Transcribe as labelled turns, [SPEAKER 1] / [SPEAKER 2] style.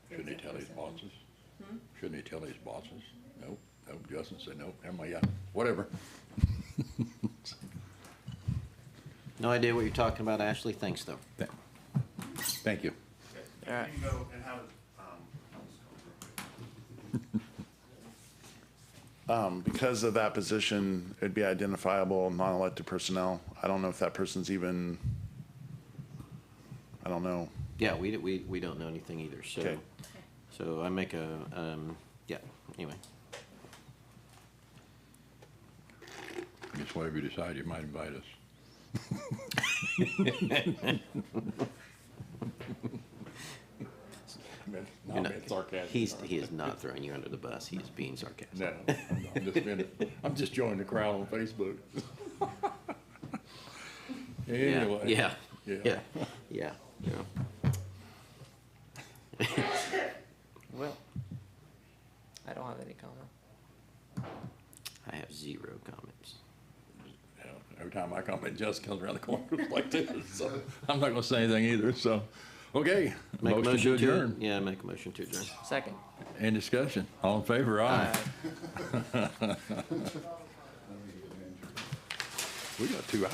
[SPEAKER 1] tell his bosses?
[SPEAKER 2] Hmm?
[SPEAKER 1] Shouldn't he tell his bosses? Nope, nope, Justin said nope, never mind, yeah, whatever.
[SPEAKER 3] No idea what you're talking about, Ashley, thanks though.
[SPEAKER 1] Th- Thank you.
[SPEAKER 4] All right.
[SPEAKER 5] You can go and have, um, I'll just go real quick. Um, because of that position, it'd be identifiable, non-elected personnel. I don't know if that person's even, I don't know.
[SPEAKER 3] Yeah, we, we, we don't know anything either, so,
[SPEAKER 5] Okay.
[SPEAKER 3] so I make a, um, yeah, anyway.
[SPEAKER 1] Guess whatever you decide, you might invite us. No,
[SPEAKER 3] You're
[SPEAKER 1] I'm
[SPEAKER 3] not-
[SPEAKER 1] being sarcastic.
[SPEAKER 3] uh, He's, he is not throwing you under the bus, he is being sarcastic.
[SPEAKER 1] No, I'm not. I'm just being, I'm just joining the crowd on Facebook.
[SPEAKER 3] Yeah,
[SPEAKER 1] Anyway.
[SPEAKER 3] Yeah,
[SPEAKER 1] Yeah.
[SPEAKER 3] yeah, yeah, yeah.
[SPEAKER 4] Will. I don't have any comment.
[SPEAKER 3] I have zero comments.
[SPEAKER 1] Yeah, Every time I comment, Just comes around the corner like this, so I'm not gonna say anything either, so, okay.
[SPEAKER 3] Make a motion to
[SPEAKER 1] adjourn.
[SPEAKER 3] Yeah, make a motion to adjourn.
[SPEAKER 4] Second.
[SPEAKER 1] Any discussion? All in favor, aye. We got two